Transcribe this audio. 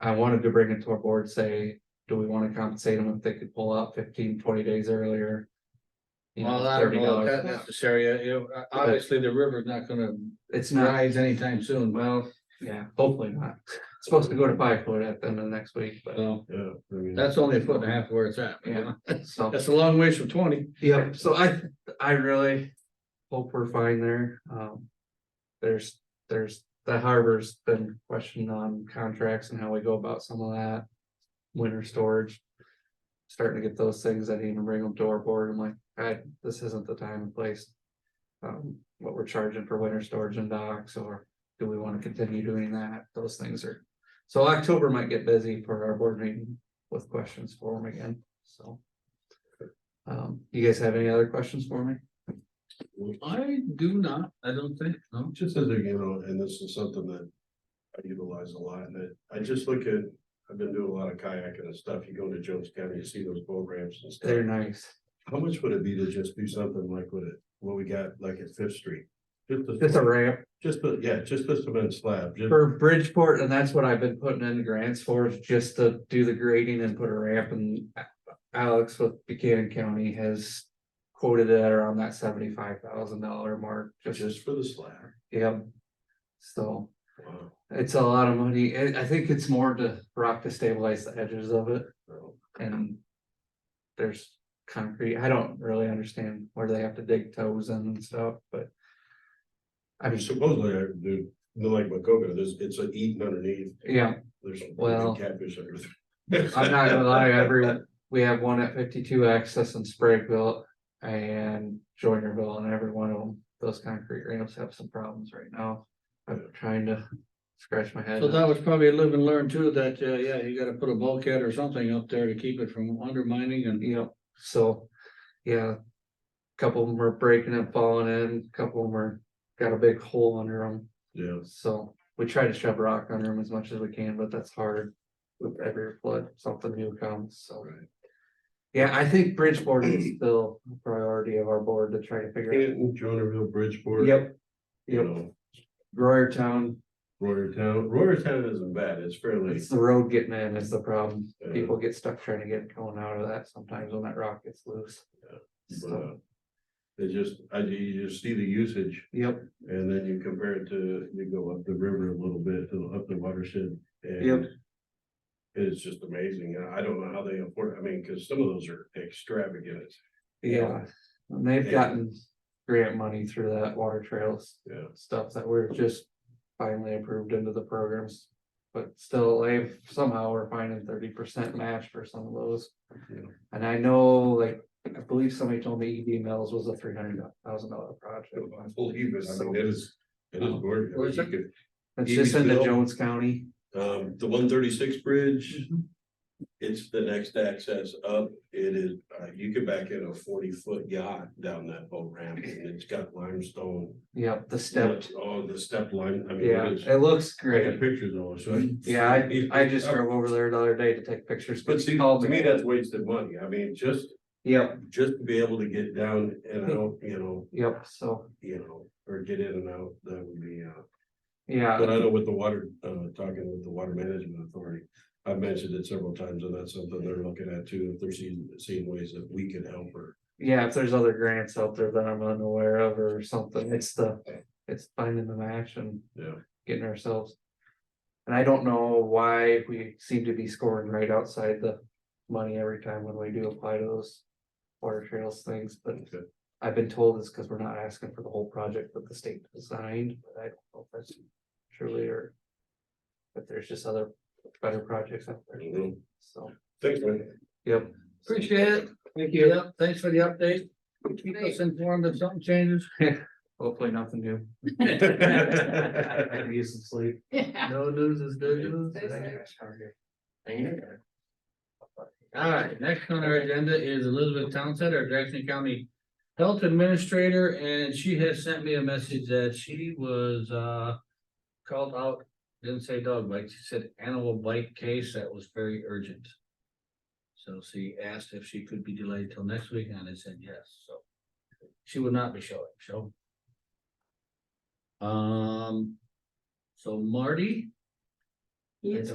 I wanted to bring it to our board, say, do we wanna compensate them if they could pull out 15, 20 days earlier? You Well, know, I don't thirty know, if dollars, that's necessary, uh, you know, uh, obviously the river's not gonna it's not, rise anytime soon, well, yeah, hopefully not, it's supposed to go to five foot at the end of next week, but, so Yeah. I mean, that's only a foot and a half where it's at. you know? so. That's a long ways from twenty. Yep, so I, I really hope we're fine there, um. There's, there's, the harbor's been questioned on contracts and how we go about some of that. Winter storage. Starting to get those things, I didn't even bring them to our board, I'm like, I, this isn't the time and place. Um, what we're charging for winter storage and docks, or do we wanna continue doing that, those things are. So October might get busy for our board meeting with questions for them again, so. Um, you guys have any other questions for me? I do not, I don't think, no. Just as a, you know, and this is something that I utilize a lot, and that I just look at, I've been doing a lot of kayaking and stuff, you go to Jones County, you see those boat ramps and stuff. They're nice. How much would it be to just do something like with it, what we got like at Fifth Street? Just, It's a a- ramp just, a- yeah, just a cement slab, just, for Bridgeport and that's what I've been putting in grants for is just to do the grading and put a ramp and Alex with Buchanan County has quoted it around that seventy-five thousand dollar mark, just as, just for the slab. yep. So Wow. it's a lot of money. I, I think it's more to rock to stabilize the edges of it So, and there's concrete. I don't really understand where they have to dig toes in and stuff, but I I mean, mean, supposedly, I do, like Wacona, there's, it's a eating underneath, yeah, there's Well, catfish under. I'm not gonna lie, every, we have one at fifty-two access in Sprayville and Joinerville and every one of them, those concrete ramps have some problems right now. I'm trying to scratch my head. So that was probably a live and learn too, that, uh, yeah, you gotta put a bulkhead or something up there to keep it from undermining and. You know, so, yeah. Couple of them are breaking and falling in, couple of them are, got a big hole under them, Yeah, so we try to shove rock under them as much as we can, but that's hard. With every flood, something new comes, so. right. Yeah, I think Bridgeport is still a priority of our board to try to figure Canton, Jonerville, out. Bridgeport. Yep, You yep, know, Royertown, Royertown, Royertown isn't bad, it's fairly. it's the road getting in is the problem. uh, People get stuck trying to get going out of that sometimes when that rock gets loose. Yeah, but, So, uh, It just, I, you just see the usage yep, and then you compare it to, you go up the river a little bit, to up the watershed and. Yep. It's just amazing, and I don't know how they afford, I mean, cause some of those are extravagant, yeah, and they've gotten grant money through that water trails yeah, stuff that we're just finally approved into the programs. But still, they've somehow we're finding thirty percent match for some of those. Yeah. And I know, like, I believe somebody told me ED Mills was a three hundred thousand dollar project. I believe it, I mean, it is, E it is gorgeous. I Where's mean, you It's just EB into Mill? Jones County. could- Um, the one thirty-six bridge, it's the next access up, it is, uh, you could back in a forty-foot yacht down that boat ramp and it's got limestone. Yep, the stepped, Oh, the step line, I mean. yeah, it is- it looks I got great. pictures of it, so. I- Yeah, I, I just drove over there the other day to take pictures. But see, to me, that's wasted money, I mean, just, Yep, just to be able to get down and out, you know, yep, so, you know, or get in and out, that would be, uh. But yeah, I know with the water, uh, talking with the Water Management Authority, I've mentioned it several times, and that's something they're looking at too, if they're seeing, seeing ways that we can help her. yeah, if there's other grants out there that I'm unaware of or something, it's the, it's finding the match and Yeah. getting ourselves. And I don't know why we seem to be scoring right outside the money every time when we do apply to those water trails things, but Okay. I've been told it's because we're not asking for the whole project that the state designed, but I don't know if that's truly or if there's just other better projects out there, Mhm. so, Thanks, man. yep. Appreciate it. Thank you. Yep, thanks for the update. Keep us informed if something changes. Hopefully nothing new. I No can use some sleep. news is good news. All right, next on our agenda is Elizabeth Townsend, our Jackson County Health Administrator, and she has sent me a message that she was, uh, called out, didn't say dog bite, she said animal bite case that was very urgent. So she asked if she could be delayed till next week, and I said yes, so she would not be showing, so. Um, so Marty? Yes.